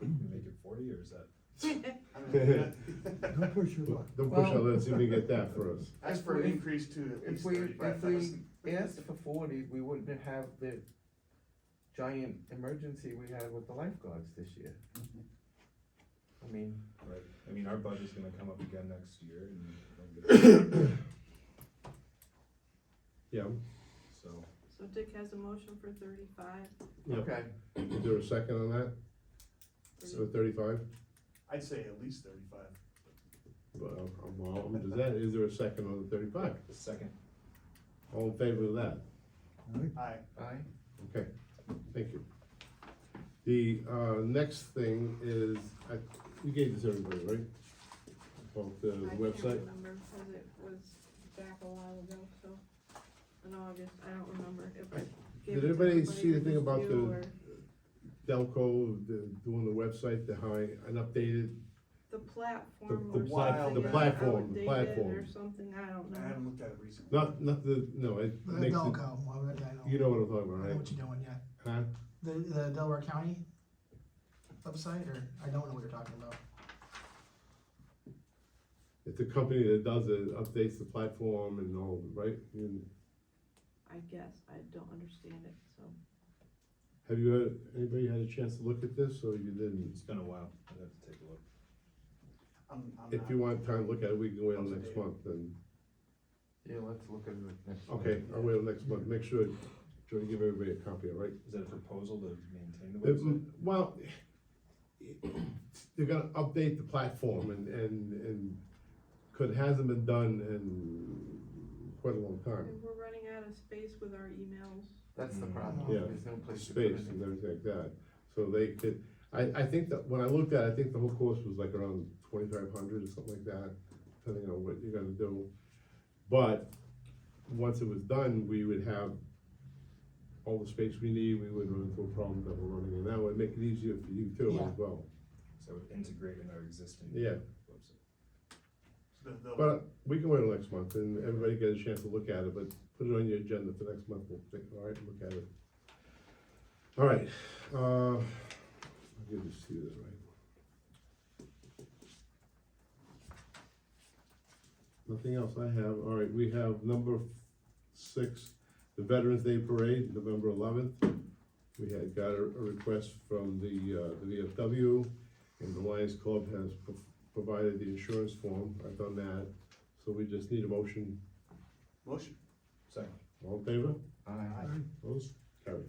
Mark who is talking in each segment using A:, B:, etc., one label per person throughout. A: Make it forty, or is that?
B: Don't push your luck.
C: Don't push
D: Well-
C: out, let's see if we get that for us.
E: Ask for an increase to at
D: If
E: least
D: we, if
E: thirty-five
D: we
E: thousand.
D: asked for forty, we wouldn't have the giant emergency we had with the lifeguards this year. I mean,
A: Right, I mean, our budget's gonna come up again next year and I don't get it.
C: Yeah,
A: so,
F: So Dick has a motion for thirty-five.
C: Yep.
D: okay,
C: is there a second on that?
F: Mm-hmm.
C: So thirty-five?
E: I'd say at least thirty-five.
C: Well, I'm- well, I'm- does that, is there a second on the thirty-five?
A: the second,
C: All in favor of that?
E: Aye.
D: aye.
C: Okay, thank you. The, uh, next thing is, I, you gave this everybody, right? About the
F: I can't
C: website?
F: remember, cause it was back a while ago, so, in August, I don't remember if I gave it
C: Did
F: to
C: everybody see the
F: or
C: thing
F: just
C: about
F: you,
C: the-
F: or
C: Delco, the, doing the website, the high, an updated,
F: The platform
C: the
F: or
E: plat-
F: something.
E: the
F: uh,
C: platform, the
F: outdated Or
C: platform.
F: something, I don't
E: I
F: know.
E: haven't looked at it recently.
C: not, not the, no, it
B: The
C: makes it,
B: Delco, well, that I know,
C: you know what I'm talking
B: I
C: about,
B: know
C: right?
B: what you're doing, yeah.
C: Huh?
B: The, the Delaware County website, or, I don't know what you're talking about.
C: It's a company that does it, updates the platform and all, right? You-
F: I guess, I don't understand it, so.
C: Have you had, anybody had a chance to look at this, or you didn't?
A: it's been a while, I'd have to take a look.
E: I'm, I'm
C: If you
E: not-
C: want time to look at it, we can wait till
E: Up to
C: next
E: date.
C: month, then,
D: Yeah, let's look at it next. week.
C: okay, I'll wait till next month, make sure, try to give everybody a copy, all right?
A: Is that a proposal to maintain the
C: It-
A: website?
C: Well, they're gonna update the platform and, and, and, cause it hasn't been done in quite a long time.
F: And We're running out of space with our emails.
D: That's the problem,
C: Yeah.
D: there's no place to put
C: Space and
D: it.
C: everything like that, so they could, I, I think that, when I looked at it, I think the whole course was like around twenty-five hundred or something like that, depending on what you're gonna do. But, once it was done, we would have all the space we need, we wouldn't run into a problem that we're running in now, it'd make it easier for you too
B: Yeah.
C: as well,
A: So it would integrate in our existing
C: yeah.
A: website.
E: The, the,
C: But uh, we can wait till next month and everybody get a chance to look at it, but put it on your agenda for next month, we'll take, all right, look at it. All right, uh, I'll give this to you, this right? Nothing else I have, all right, we have number six, the Veterans Day Parade, November eleventh. We had got a, a request from the, uh, the VFW and the Lions Club has pro- provided the insurance form, I've done that, so we just need a motion,
E: motion,
A: Second,
C: all in favor?
D: Aye.
C: Opposed? Carried.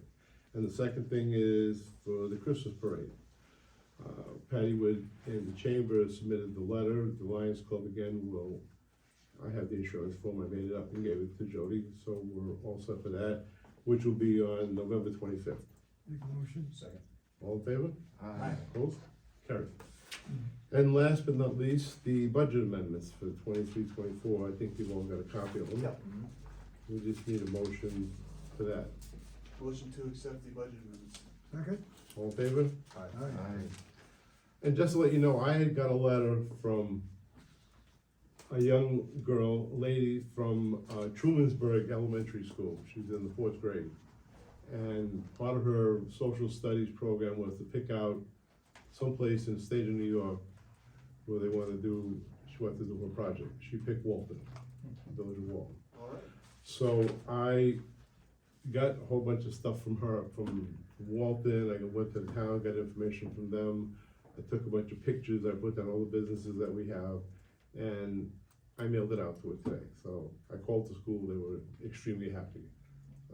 C: And the second thing is for the Christmas parade. Uh, Patty Wood and the chamber submitted the letter, the Lions Club again will, I have the insurance form, I made it up and gave it to Jody, so we're all set for that, which will be on November twenty-fifth.
B: Make a motion.
A: second.
C: All in favor?
D: Aye.
C: Opposed? Carried. And last but not least, the budget amendments for 23-24. I think you've all got a copy of them.
E: Yep.
A: Mhm.
C: We just need a motion for that.
E: motion to accept the budget amendments.
B: Second?
C: All in favor?
A: Aye.
D: Aye.
C: And just to let you know, I had got a letter from a young girl, lady from uh, Trumansburg Elementary School. She's in the fourth grade. And part of her social studies program was to pick out someplace in the state of New York where they want to do, she wanted to do her project. She picked Walton, Village of Walton.
E: All right.
C: So I got a whole bunch of stuff from her, from Walton, I went to the town, got information from them. I took a bunch of pictures, I put down all the businesses that we have, and I mailed it out to her today. So I called the school, they were extremely happy.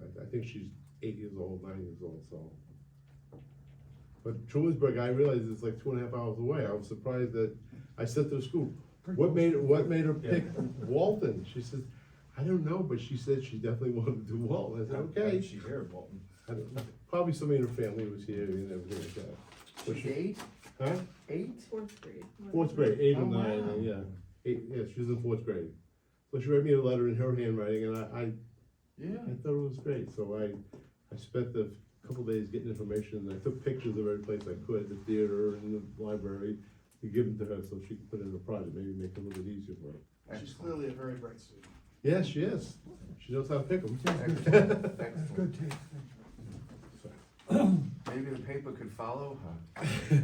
C: I, I think she's eight years old, nine years old, so. But Trumansburg, I realized it's like two and a half hours away, I was surprised that, I said to the school, what made, what made her pick Walton? She says, I don't know, but she said she definitely wanted to do Walton. I
D: Oh,
C: said,
A: Why
C: okay.
A: did she hear of Walton?
C: I don't know. Probably somebody in her family was here and everything like that. But
D: She's
C: she-
D: eight,
C: Huh?
D: eight?
F: Fourth grade.
C: Fourth grade, eight
D: Oh,
C: or nine,
D: wow.
C: yeah. Eight, yeah, she was in fourth grade. So she wrote me a letter in her handwriting and I, I,
D: Yeah.
C: I thought it was great. So I, I spent the couple days getting information and I took pictures of every place I could, the theater and the library. To give them to her so she could put it in a project, maybe make it a little bit easier for her.
E: She's
D: Excellent.
E: clearly a very bright student.
C: Yes, she is. She knows how to pick them.
D: Excellent,
B: That's
D: excellent.
B: good taste, thank you.
D: Maybe the paper could follow her.